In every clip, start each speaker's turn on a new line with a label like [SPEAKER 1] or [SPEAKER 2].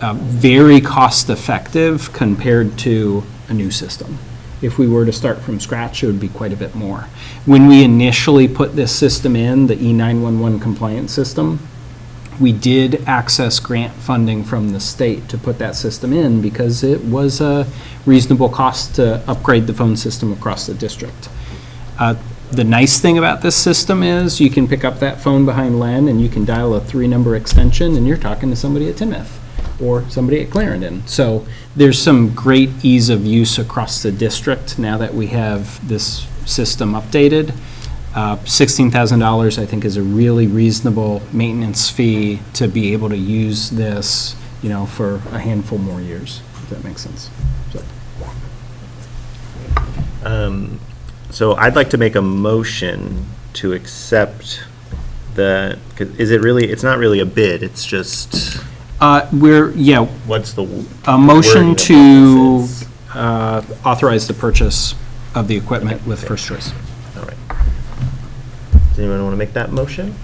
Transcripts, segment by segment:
[SPEAKER 1] um, very cost-effective compared to a new system. If we were to start from scratch, it would be quite a bit more. When we initially put this system in, the E E911 compliance system, we did access grant funding from the state to put that system in because it was a reasonable cost to upgrade the phone system across the district. Uh, The nice thing about this system is you can pick up that phone behind Len and you can dial a three-number extension and you're talking to somebody at Timoth or somebody at Clarendon. So there's some great ease of use across the district now that we have this system updated. Uh, $16,000, I think, is a really reasonable maintenance fee to be able to use this, you know, for a handful more years, if that makes sense. So,
[SPEAKER 2] So I'd like to make a motion to accept the, 'cause is it really, it's not really a bid, it's just,
[SPEAKER 1] uh, We're, yeah,
[SPEAKER 2] what's the?
[SPEAKER 1] a motion to uh, authorize the purchase of the equipment with First Choice.
[SPEAKER 2] All right. Does anyone want to make that motion?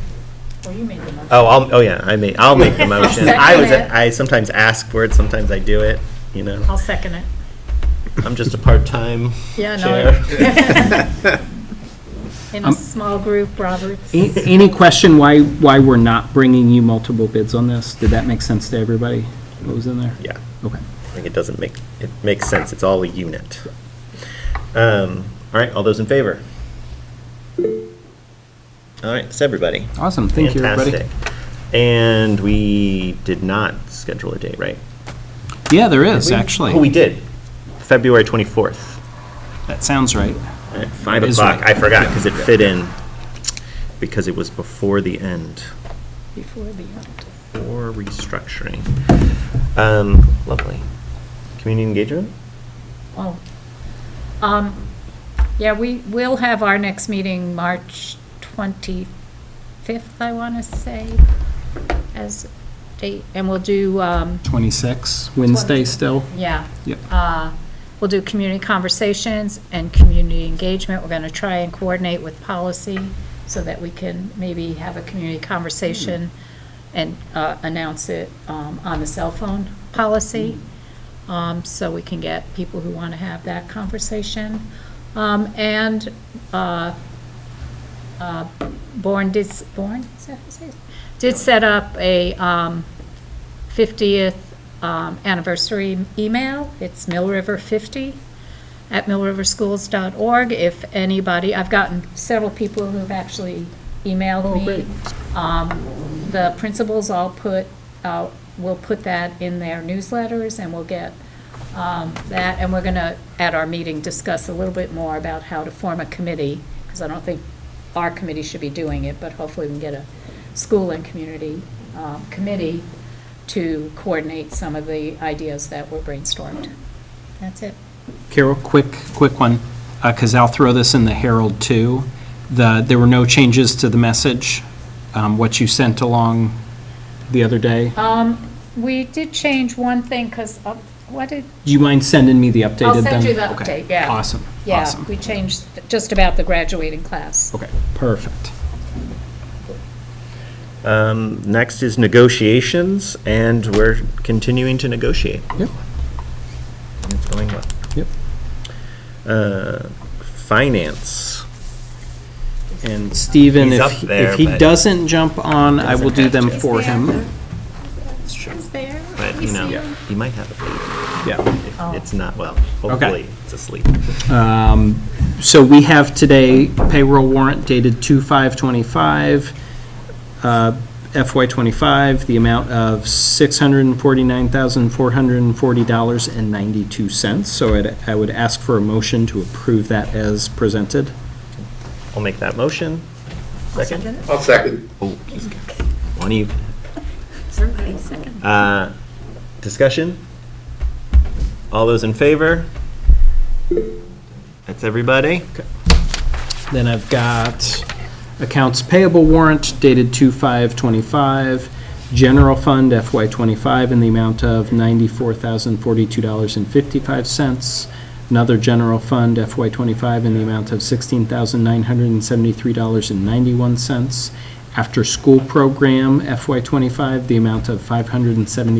[SPEAKER 3] Well, you made the motion.
[SPEAKER 2] Oh, I'll, oh yeah, I may, I'll make the motion. I was,
[SPEAKER 3] Second it.
[SPEAKER 2] I sometimes ask for it, sometimes I do it, you know,
[SPEAKER 3] I'll second it.
[SPEAKER 2] I'm just a part-time
[SPEAKER 3] Yeah,
[SPEAKER 2] chair.
[SPEAKER 3] no. In a
[SPEAKER 1] Um,
[SPEAKER 3] small group, Roberts.
[SPEAKER 1] A- Any question why, why we're not bringing you multiple bids on this? Did that make sense to everybody? What was in there?
[SPEAKER 2] Yeah.
[SPEAKER 1] Okay.
[SPEAKER 2] I think it doesn't make, it makes sense, it's all a unit. Um, All right, all those in favor? All right, it's everybody.
[SPEAKER 1] Awesome, thank you, everybody.
[SPEAKER 2] Fantastic. And we did not schedule a date, right?
[SPEAKER 1] Yeah, there is,
[SPEAKER 2] We- Oh, we
[SPEAKER 1] actually.
[SPEAKER 2] did. February 24th
[SPEAKER 1] That sounds right.
[SPEAKER 2] at 5
[SPEAKER 1] That is
[SPEAKER 2] o'clock. I
[SPEAKER 1] right.
[SPEAKER 2] forgot because it fit in, because it was before the end
[SPEAKER 3] Before the end.
[SPEAKER 2] or restructuring. Um, Lovely. Community engagement?
[SPEAKER 3] Oh. Um, yeah, we will have our next meeting March 25th, I want to say, as date, and we'll do, um,
[SPEAKER 1] 26, Wednesday still?
[SPEAKER 3] yeah.
[SPEAKER 1] Yep.
[SPEAKER 3] Uh, We'll do community conversations and community engagement. We're going to try and coordinate with policy so that we can maybe have a community conversation and uh, announce it um, on the cell phone policy, um, so we can get people who want to have that conversation. Um, And uh, uh, Bourne did, s- Bourne, is that how you say it? Did set up a um, 50th um, anniversary email. It's millriver50 at millriverschools.org. If anybody, I've gotten several people who've actually emailed me. Um, The principals all put, uh, will put that in their newsletters, and we'll get um, that, and we're going to, at our meeting, discuss a little bit more about how to form a committee, because I don't think our committee should be doing it, but hopefully we can get a school and community um, committee to coordinate some of the ideas that were brainstormed. That's it.
[SPEAKER 1] Carol, quick, quick one, because I'll throw this in the Herald too. The, there were no changes to the message, um, what you sent along the other day. Do
[SPEAKER 3] We did change one thing, because, what did,
[SPEAKER 1] you mind sending me the updated then?
[SPEAKER 3] I'll send you the
[SPEAKER 1] Okay.
[SPEAKER 3] update, yeah.
[SPEAKER 1] Awesome,
[SPEAKER 3] Yeah,
[SPEAKER 1] awesome.
[SPEAKER 3] we changed just about the graduating class.
[SPEAKER 1] Okay, perfect.
[SPEAKER 2] Um, Next is negotiations, and we're continuing to negotiate.
[SPEAKER 1] Yep,
[SPEAKER 2] It's going well.
[SPEAKER 1] yep.
[SPEAKER 2] Uh, Finance. And
[SPEAKER 1] Steven,
[SPEAKER 2] He's
[SPEAKER 1] if,
[SPEAKER 2] up
[SPEAKER 1] he-
[SPEAKER 2] there,
[SPEAKER 1] if he
[SPEAKER 2] but-
[SPEAKER 1] doesn't jump on, I will
[SPEAKER 2] Doesn't
[SPEAKER 1] do
[SPEAKER 2] have
[SPEAKER 1] them
[SPEAKER 2] to.
[SPEAKER 1] for him.
[SPEAKER 2] It's true.
[SPEAKER 3] there?
[SPEAKER 2] But, you know, he might have a baby.
[SPEAKER 1] Yeah.
[SPEAKER 2] If it's not, well,
[SPEAKER 1] Okay.
[SPEAKER 2] hopefully, it's asleep.
[SPEAKER 1] Um, So we have today payroll warrant dated 2/5/25, uh, FY '25, the amount of $649,440.92. So I'd- I would ask for a motion to approve that as presented.
[SPEAKER 2] I'll make that motion. Second?
[SPEAKER 4] I'll second.
[SPEAKER 2] One of you.
[SPEAKER 3] Somebody second.
[SPEAKER 2] Uh, Discussion? All those in favor? That's everybody?
[SPEAKER 1] Then I've got accounts payable warrant dated 2/5/25, general fund FY '25 in the amount of $94,042.55. Another general fund FY '25 in the amount of $16,973.91. After-school program FY '25, the amount of 570.